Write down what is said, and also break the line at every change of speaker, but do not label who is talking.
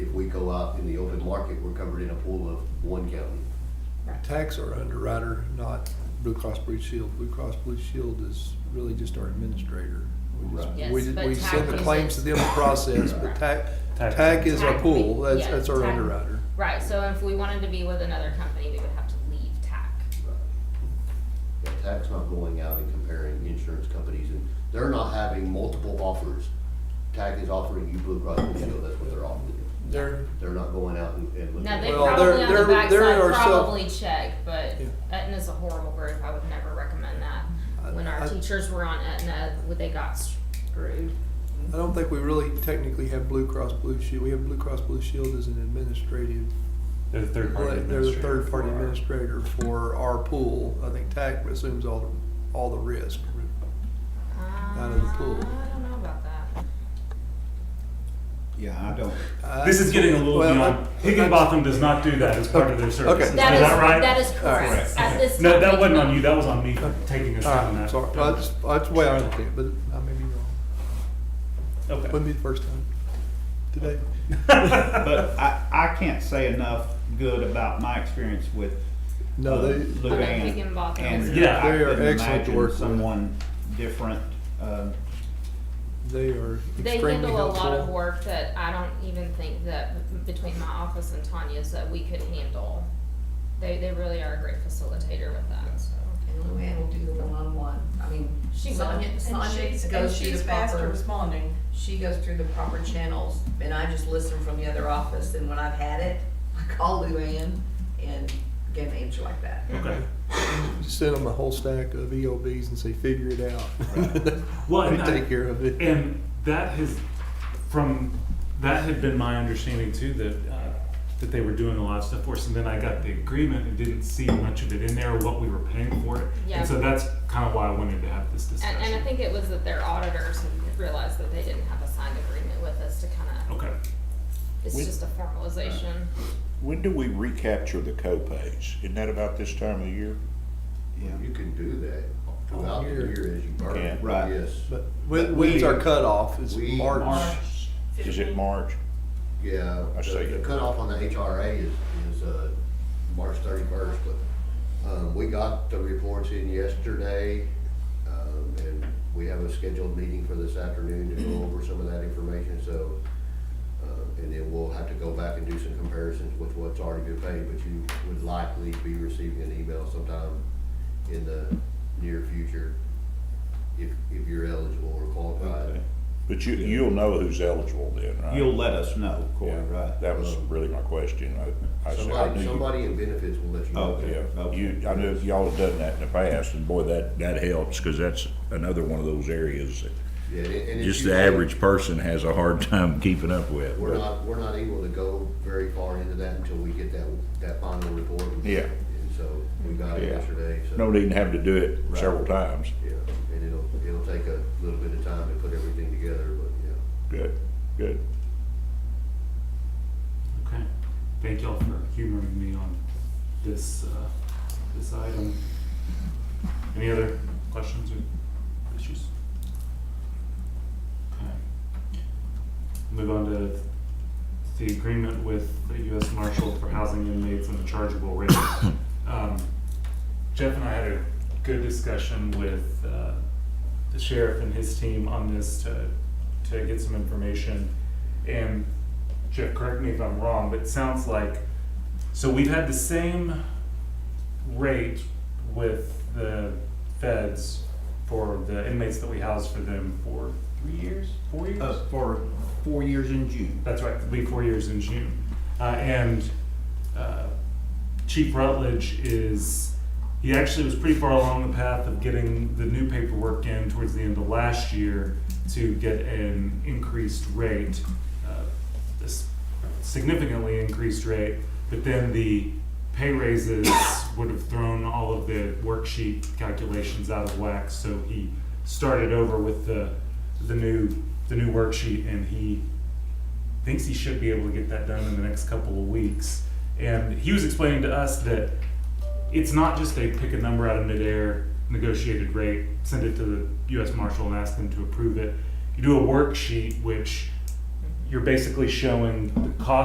go out in the open market, we're covered in a pool of one county.
Tax our underwriter, not Blue Cross Blue Shield. Blue Cross Blue Shield is really just our administrator. We just-
Right.
Yes,
we-
but
We send the
TAC is
claims to them to process, but
Right.
TAC,
TAC.
TAC is our
TAC,
pool,
we-
that's,
yeah,
that's our
TAC.
underwriter.
Right, so if we wanted to be with another company, we would have to leave TAC.
Yeah, TAC's not going out and comparing insurance companies, and they're not having multiple offers. TAC is offering you Blue Cross Blue Shield, that's what they're offering.
They're,
They're not going out and, and looking.
Now,
at-
they
Well,
probably
they're-
on the
they're- they're
backside
ourself-
probably check, but
Yeah.
Aetna's a horrible group, I would never recommend that.
I-
When our
I-
teachers were on Aetna, would- they got screwed.
I don't think we really technically have Blue Cross Blue Shield. We have Blue Cross Blue Shield as an administrative,
They're the third
they're
party
the
administrator.
third party
for our-
administrator for our pool. I think TAC assumes all, the all the risk.
Out
of the pool.
Um, I don't know about that.
Yeah, I don't.
I-
This is getting a little
Well,
beyond,
I-
Higginbotham does not do that as part of their services, is
That is,
that right?
that is correct.
Correct.
At this time.
No, that
we
wasn't
cannot-
on you, that was on me for taking us
All right,
down that.
sorry. Well, That's, that's the way I look at it, but I may be wrong.
Okay.
Wouldn't be the first time today.
But I, I can't say enough good about my experience with
No,
uh,
they,
I
Luann.
mean, we can bop
And
it.
Yeah.
I
They are
couldn't
excellent to
imagine
work with.
someone different. Uh,
they are
They
extremely
handle a lot of
helpful.
work that I don't even think that between my office and Tanya's that we could handle. They, they really are a great facilitator with that, so.
And Luann will do the one-on-one, I mean,
She will.
Sonia,
And
Sonia
she's-
goes through
And
the
she's fast at
proper,
responding.
she goes through the proper channels, and I just listen from the other office, and when I've had it, I call Luann and get an answer like that.
Okay.
Just send them a whole stack of EOBs and say, figure it out.
Well,
They
and I-
take care of it.
And that has, from, that had been my understanding too, that, uh, that they were doing a lot of stuff for us, and then I got the agreement and didn't see much of it in there, what we were paying for it.
Yeah.
And so that's kind of why I wanted to have this
And, and I
discussion.
think it was that their auditors had realized that they didn't have a signed agreement with us to kinda,
Okay.
it's
We-
just a formalization.
When do we recapture the co-pays? Isn't that about this time of year?
yeah.
You can do that throughout the
All year.
year as you burn.
Yeah.
Right.
Yes,
But when, when's our cutoff? Is
we-
March?
March.
Is it March?
yeah.
I
the-
see.
The cutoff on the HRA is, is, uh, March thirty-first, but, um, we got the reports in yesterday. Um, and we have a scheduled meeting for this afternoon to go over some of that information, so, uh, and then we'll have to go back and do some comparisons with what's already been paid, but you would likely be receiving an email sometime in the near future if, if you're eligible or qualified.
Okay. But you, you'll know who's eligible then, right?
You'll let us know, Corey,
Yeah,
right?
That was really my question. I, I said, I knew
Somebody,
you-
somebody in benefits will let you know.
Okay.
Yeah, you, I knew y'all have done that in the past, and boy, that, that helps, cause that's another one of those areas that
Yeah, and- and if
just
you-
the average person has a hard time keeping up with.
We're
but-
not, we're not able to go very far into that until we get that, that final report.
Yeah.
And so we got it
Yeah.
yesterday, so.
No need to have to do it several times.
Yeah, and it'll, it'll take a little bit of time to put everything together, but, yeah.
Good, good.
Okay. Thank y'all for humoring me on this, uh, this item. Any other questions or issues? Okay. Move on to the agreement with the U.S. Marshal for housing inmates and the chargeable rate. Um, Jeff and I had a good discussion with, uh, the sheriff and his team on this to, to get some information. And Jeff, correct me if I'm wrong, but it sounds like, so we've had the same rate with the feds for the inmates that we housed for them for three years, four years?
Uh, for four years in June.
That's right, it'll be four years in June. Uh, and uh, Chief Rutledge is, he actually was pretty far along the path of getting the new paperwork in towards the end of last year to get an increased rate, uh, this significantly increased rate, but then the pay raises would have thrown all of the worksheet calculations out of whack, so he started over with the, the new, the new worksheet, and he thinks he should be able to get that done in the next couple of weeks. And he was explaining to us that it's not just a pick a number out of midair, negotiated rate, send it to the U.S. Marshal and ask them to approve it. You do a worksheet, which you're basically showing the cost.